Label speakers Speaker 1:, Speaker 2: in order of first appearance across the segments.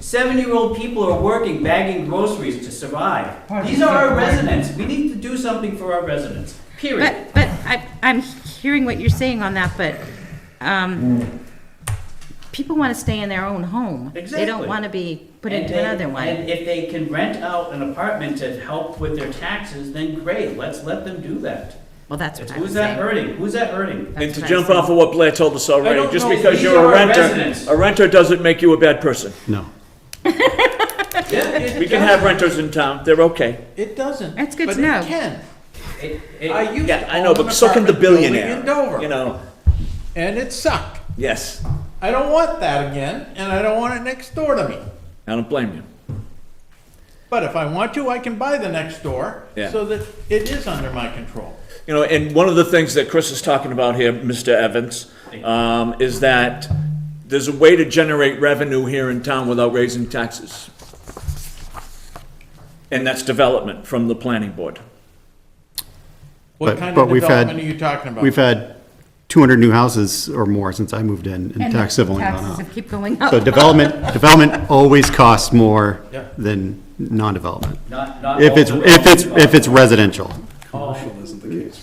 Speaker 1: Seven-year-old people are working, bagging groceries to survive.
Speaker 2: Pardon,
Speaker 1: These are our
Speaker 2: sir.
Speaker 1: residents. We need to do something for our residents, period.
Speaker 3: But, but I, I'm hearing what you're saying on that, but, um, people want to stay in their own home. They
Speaker 1: Exactly.
Speaker 3: don't want to be put
Speaker 1: And
Speaker 3: into
Speaker 1: they-
Speaker 3: another one.
Speaker 1: And if they can rent out an apartment to help with their taxes, then great, let's let them do that.
Speaker 3: Well, that's what I was
Speaker 1: Who's that
Speaker 3: saying.
Speaker 1: hurting? Who's that hurting?
Speaker 3: That's
Speaker 4: And to
Speaker 3: what I
Speaker 4: jump
Speaker 3: said.
Speaker 4: off of what Blair told us already,
Speaker 1: don't
Speaker 4: just
Speaker 1: know.
Speaker 4: because
Speaker 1: These
Speaker 4: you're
Speaker 1: are
Speaker 4: a
Speaker 1: our
Speaker 4: renter,
Speaker 1: residents.
Speaker 4: a renter doesn't make you a bad person.
Speaker 5: No.
Speaker 1: Yeah, it
Speaker 4: We can
Speaker 1: does.
Speaker 4: have renters in town, they're okay.
Speaker 2: It doesn't.
Speaker 3: That's good
Speaker 2: but
Speaker 3: to know.
Speaker 2: It can.
Speaker 1: It- it-
Speaker 2: I used
Speaker 4: Yeah,
Speaker 2: to
Speaker 4: I know,
Speaker 2: own an
Speaker 4: but so can the
Speaker 2: apartment building
Speaker 4: billionaire.
Speaker 2: in Dover,
Speaker 4: You know,
Speaker 2: and it sucked.
Speaker 4: yes,
Speaker 2: I don't want that again, and I don't want it next door to me.
Speaker 4: I don't blame you.
Speaker 2: But if I want to, I can buy the next door,
Speaker 4: Yeah.
Speaker 2: so that it is under my control.
Speaker 4: You know, and one of the things that Chris is talking about here, Mr. Evans, um, is that there's a way to generate revenue here in town without raising taxes. And that's development from the planning board.
Speaker 2: What
Speaker 5: But-
Speaker 2: kind
Speaker 5: but
Speaker 2: of
Speaker 5: we've had-
Speaker 2: development are you talking about?
Speaker 5: We've had 200 new houses or more since I moved in, and
Speaker 3: And
Speaker 5: tax civil gone
Speaker 3: Taxes
Speaker 5: up.
Speaker 3: have keep going up.
Speaker 5: So development, development always costs more
Speaker 2: Yeah.
Speaker 5: than non-development.
Speaker 1: Not, not.
Speaker 5: If
Speaker 1: all
Speaker 5: it's, if it's, if it's residential,
Speaker 1: Commercial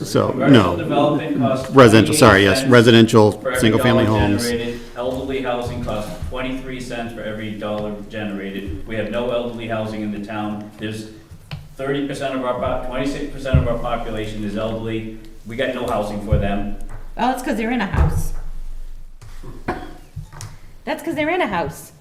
Speaker 5: so,
Speaker 1: Commercial
Speaker 5: no.
Speaker 1: development costs.
Speaker 5: Residential, sorry,
Speaker 1: 28
Speaker 5: yes,
Speaker 1: cents
Speaker 5: residential,
Speaker 1: for every
Speaker 5: single-family
Speaker 1: dollar
Speaker 5: homes.
Speaker 1: generated. Elderly housing costs twenty-three cents for every dollar generated. We have no elderly housing in the town. There's thirty percent of our, twenty-six percent of our population is elderly. We got no housing for them.
Speaker 3: Oh, it's because they're in a house. That's because they're in a house.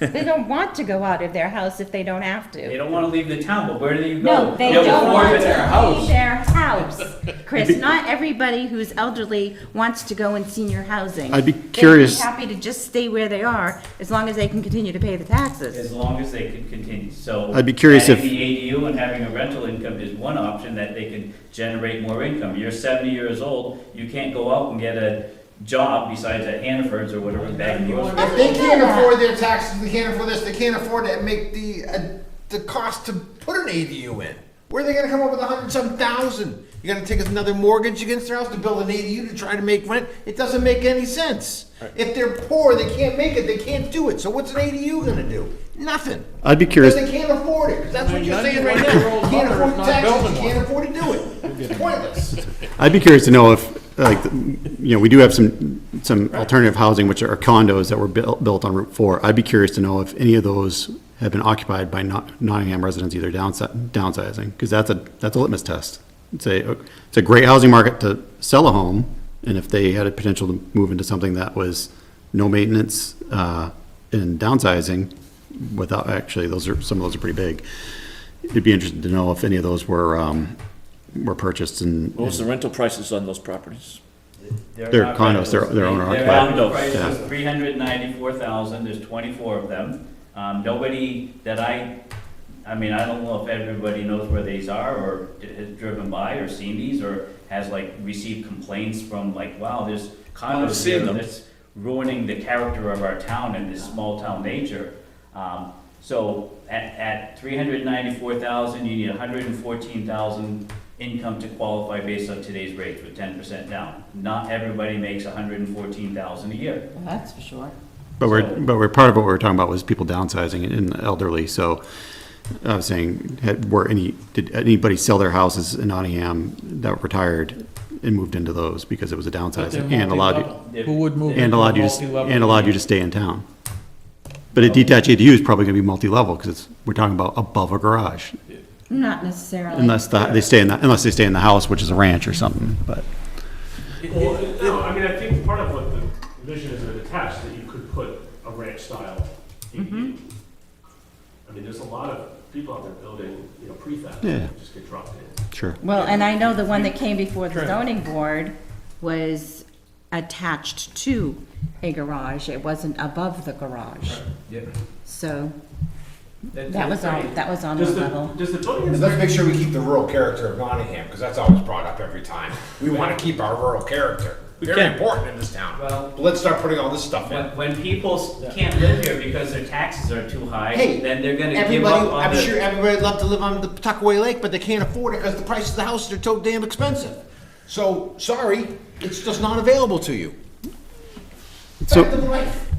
Speaker 3: They don't want to go out of their house if they don't have
Speaker 1: They
Speaker 3: to.
Speaker 1: don't wanna leave the town, but where do you go?
Speaker 3: No, they
Speaker 1: They'll
Speaker 3: don't
Speaker 1: afford
Speaker 3: want to
Speaker 1: it.
Speaker 3: leave their house. Chris, not everybody who's elderly wants to go in senior housing.
Speaker 5: I'd be
Speaker 3: They'd
Speaker 5: curious-
Speaker 3: happy to just stay where they are, as long as they can continue to pay the taxes.
Speaker 1: As long as they can continue, so.
Speaker 5: I'd be curious if-
Speaker 1: Having the ADU and having a rental income is one option that they can generate more income. You're seventy years old, you can't go out and get a job besides at Hannaford's or whatever back in
Speaker 6: If they can't afford their taxes, they can't afford this, they can't afford to make the, uh, the cost to put an ADU in. Where are they gonna come up with a hundred some thousand? You're gonna take another mortgage against their house to build an ADU to try to make rent? It doesn't make any sense. If they're poor, they can't make it, they can't do it, so what's an ADU gonna do? Nothing.
Speaker 5: I'd be curious,
Speaker 6: Because they can't afford it, 'cause that's what
Speaker 2: My
Speaker 6: you're saying right now.
Speaker 2: 91-year-old
Speaker 6: Can't
Speaker 2: mother is
Speaker 6: afford
Speaker 2: not
Speaker 6: taxes,
Speaker 2: building one.
Speaker 6: can't afford to do it. It's pointless.
Speaker 5: I'd be curious to know if, like, you know, we do have some, some alternative housing, which are condos that were built, built on Route 4. I'd be curious to know if any of those have been occupied by Not- Nottingham residents either downsi- downsizing, because that's a, that's a litmus test. It's a, it's a great housing market to sell a home, and if they had a potential to move into something that was no maintenance, uh, and downsizing, without, actually, those are, some of those are pretty big. It'd be interesting to know if any of those were, um, were purchased and.
Speaker 4: What was the rental prices on those properties?
Speaker 5: They're condos, they're- they're owner-occupied.
Speaker 4: Condos,
Speaker 1: price
Speaker 5: yeah.
Speaker 1: is three hundred ninety-four thousand, there's twenty-four of them. Um, nobody that I, I mean, I don't know if everybody knows where these are, or d- has driven by, or seen these, or has like received complaints from like, wow, there's condos
Speaker 4: seen
Speaker 1: here
Speaker 4: them.
Speaker 1: that's ruining the character of our town and this small-town nature. Um, so at, at three hundred ninety-four thousand, you need hundred and fourteen thousand income to qualify based on today's rates with ten percent down. Not everybody makes hundred and fourteen thousand a year.
Speaker 3: Well, that's for sure.
Speaker 5: But we're,
Speaker 1: So-
Speaker 5: but we're, part of what we were talking about was people downsizing and- and elderly, so I was saying, had, were any, did anybody sell their houses in Nottingham that were retired and moved into those because it was a
Speaker 2: But they're
Speaker 5: downsizing and allowed you,
Speaker 2: multi-level. Who would move?
Speaker 5: and
Speaker 2: into
Speaker 5: allowed you to,
Speaker 2: multi-level?
Speaker 5: and allowed you to stay in town? But a detached ADU is probably gonna be multi-level, because it's, we're talking about above a garage,
Speaker 3: Not necessarily.
Speaker 5: unless the, they stay in the, unless they stay in the house, which is a ranch or something, but.
Speaker 7: Well, no, I mean, I think part of what the vision is of attached, that you could put a ranch style
Speaker 3: Mm-hmm.
Speaker 7: ADU. I mean, there's a lot of people out there building, you know, prefabs
Speaker 5: Yeah.
Speaker 7: that just get dropped in.
Speaker 5: Sure.
Speaker 3: Well, and I know the one that came before the zoning board was attached to a garage. It wasn't above the garage.
Speaker 1: Yep.
Speaker 3: So that was on, that was on the
Speaker 7: Does the,
Speaker 3: level.
Speaker 7: does the building
Speaker 6: And
Speaker 7: inspector,
Speaker 6: Let's make sure we keep the rural character of Nottingham, because that's always brought up every time. We want to keep our rural character. Very
Speaker 4: can.
Speaker 6: important in this town.
Speaker 1: Well-
Speaker 6: But let's start putting all this stuff in.
Speaker 1: When, when people s- can't live here because their taxes are too high, then they're gonna give
Speaker 6: everybody,
Speaker 1: up on
Speaker 6: I'm sure
Speaker 1: the.
Speaker 6: everybody'd love to live on the Pawtuckaway Lake, but they can't afford it because the price of the houses are so damn expensive. So, sorry, it's just not available to you.
Speaker 5: So-
Speaker 6: Fact of life.